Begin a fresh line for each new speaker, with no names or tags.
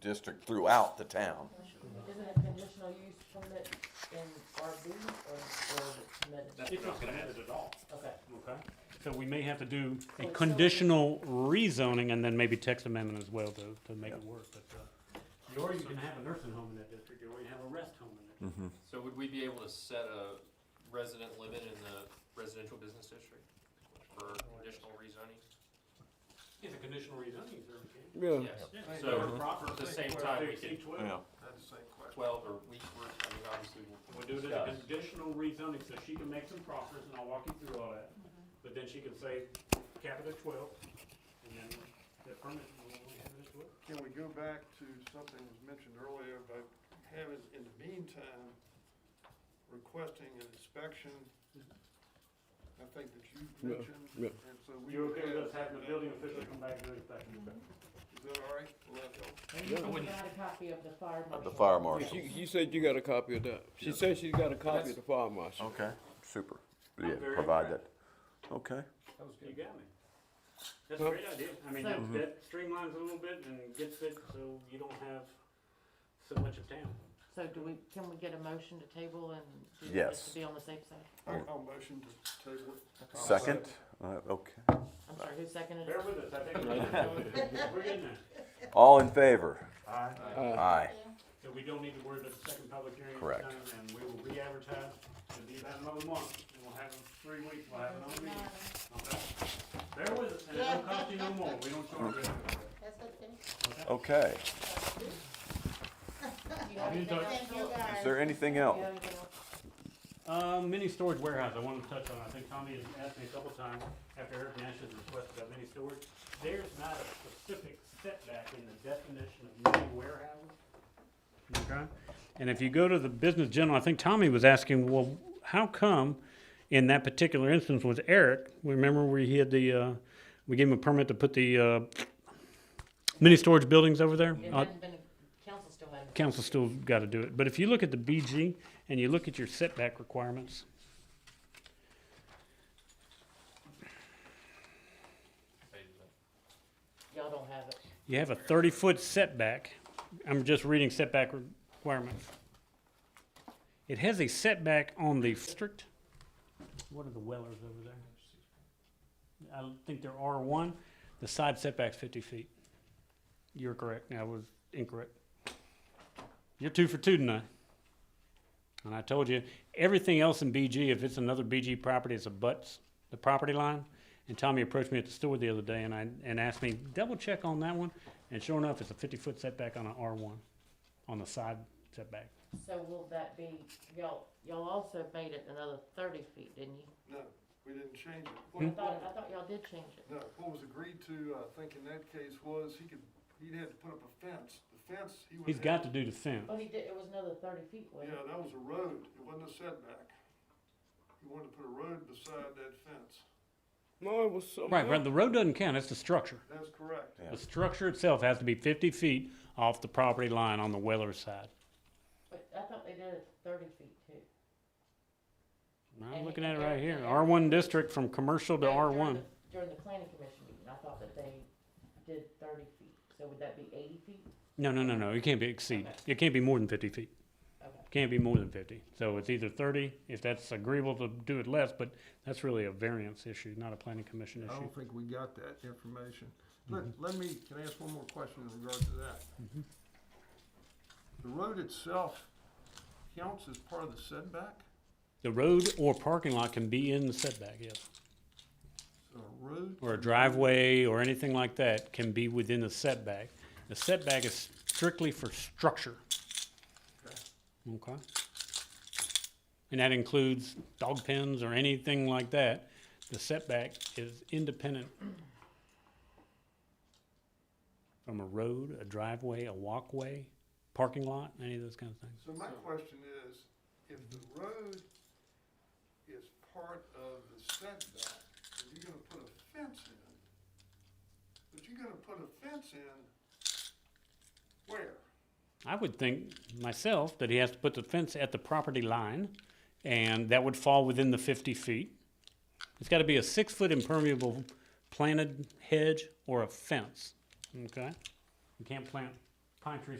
district throughout the town.
Isn't it conditional use permit in RB or, or is it permitted?
That's
It's
what I
not
was gonna
permitted at
ask.
all,
Okay.
okay? So we may have to do a
Well, so-
conditional rezoning and then maybe text amendment as well to, to make it work, but, uh, or you can have a nursing home in that district, or you can have a rest home in that district.
So would we be able to set a resident limit in the residential business district for additional rezoning?
It's a conditional rezoning, so we
Yeah.
Yes,
can.
So,
Or proper,
at the
say,
same
where
time,
they
we
see
can-
twelve.
Yeah,
That's the same question.
twelve or week work, I mean, obviously.
We'll do it as a conditional rezoning, so she can make some progress, and I'll walk you through all that. But then she can say, cap it at twelve, and then the permit, we'll have it at twelve.
Can we go back to something that was mentioned earlier about having, in the meantime, requesting an inspection? I think that you mentioned, and so we.
You
would
okay with us
have
having the
that
building
on
official
tape.
come back and do it back?
Is that all right? Will that help?
You got a copy of the fire marshal.
the fire marshal.
You, you said you got a copy of that. She said she's got a copy of the fire marshal.
Okay, super.
I'm
Yeah,
very
provide that. Okay,
You got me. That's a great idea. I mean, that, that streamlines it a little bit and gets it so you don't have so much of town.
So do we, can we get a motion to table and do this
Yes.
to be on the safe side?
I'll- I'll motion to table it.
second, uh, okay.
I'm sorry, who seconded
Bear
it?
with us, I think we're getting there. We're getting there.
All in favor?
Aye.
Aye.
So we don't need to worry about the second public hearing. this
Correct.
time, And we will re-advertise, it'll be about another month, and we'll have it three weeks, we'll have it on meeting. Okay? Bear with us, and it don't cost you no more, we don't charge you.
Okay,
Do you have anything else?
Thank you guys.
is there anything
Do you
else?
have anything else?
Um, mini storage warehouse, I wanted to touch on, I think Tommy has asked me a couple times after Eric Nash's request about mini storage. There's not a specific setback in the definition of mini warehouse. Okay, and if you go to the business general, I think Tommy was asking, well, how come in that particular instance with Eric, remember where he had the, uh, we gave him a permit to put the, uh, mini storage buildings over there?
It
Uh,
hadn't been, council still hadn't.
council still got to do it. But if you look at the BG and you look at your setback requirements,
Y'all don't have it.
you have a thirty-foot setback. I'm just reading setback requirements. It has a setback on the district. What are the Wellers over there? I think they're R one. The side setback's fifty feet. You're correct. I was incorrect. You're two for two tonight. And I told you, everything else in BG, if it's another BG property, it's abuts the property line. And Tommy approached me at the store the other day and I, and asked me, double check on that one. And sure enough, it's a fifty foot setback on an R one, on the side setback.
So will that be, y'all, y'all also made it another thirty feet, didn't you?
No, we didn't change it.
I
What-
thought, I thought y'all did change it.
No, what was agreed to, uh, I think in that case, was he could, he'd had to put up a fence. The fence, he would.
He's got to do the fence.
Oh, he did, it was another thirty feet, wasn't
Yeah,
it?
that was a road, it wasn't a setback. He wanted to put a road beside that fence,
No, it was something.
Right, right, the road doesn't count, it's the structure.
that's correct.
Yeah.
The structure itself has to be fifty feet off the property line on the Weller side.
But I thought they did it thirty feet too.
I'm looking at it right here, R one district from commercial to
No,
R
during
one.
the- During the planning commission meeting, I thought that they did thirty feet, so would that be eighty feet?
No, no, no, no, it can't be exceed,
Okay.
it can't be more than fifty feet.
Okay.
Can't be more than fifty. So it's either thirty, if that's agreeable to do it less, but that's really a variance issue, not a planning commission
I
issue.
Oh.
don't think we got that information. Let,
Mm-hmm.
let me, can I ask one more question in regard to that? The road itself counts as part of the setback?
The road or parking lot can be in the setback, yes.
So a road?
Or a driveway or anything like that can be within the setback. The setback is strictly for structure. Okay? And that includes dog pens or anything like that. The setback is independent from a road, a driveway, a walkway, parking lot, any of those kinds of things.
So my question is, if the road is part of the setback, and you're gonna put a fence in, but you're gonna put a fence in where?
I would think myself that he has to put the fence at the property line, and that would fall within the fifty feet. It's gotta be a six-foot impermeable planted hedge or a fence, okay? You can't plant pine trees